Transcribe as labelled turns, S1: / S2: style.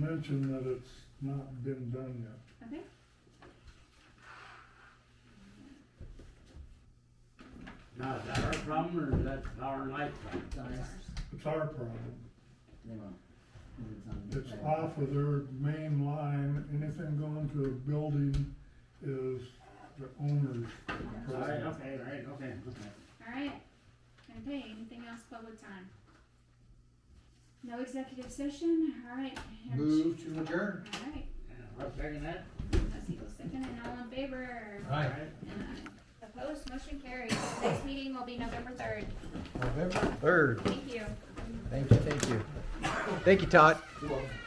S1: mention that it's not been done yet.
S2: Okay.
S3: Now, is that our problem or is that power and light problem?
S4: Ours,
S1: It's our problem.
S4: they won't, 'cause it's on. the
S1: It's
S4: side.
S1: off of their main line. Anything going to a building is the owner's.
S3: All
S1: problem.
S3: right, okay, all right, okay, okay.
S2: Alright, okay, anything else public time? No executive session, alright.
S4: Move to adjourn.
S2: Alright,
S3: Yeah, I'll second that.
S2: that's equal second and all in favor?
S3: All right.
S2: And aye. Opposed, motion carries. Next meeting will be November third.
S5: November third.
S2: Thank you.
S5: Thank you, thank you. Thank you, Todd.
S4: You're welcome.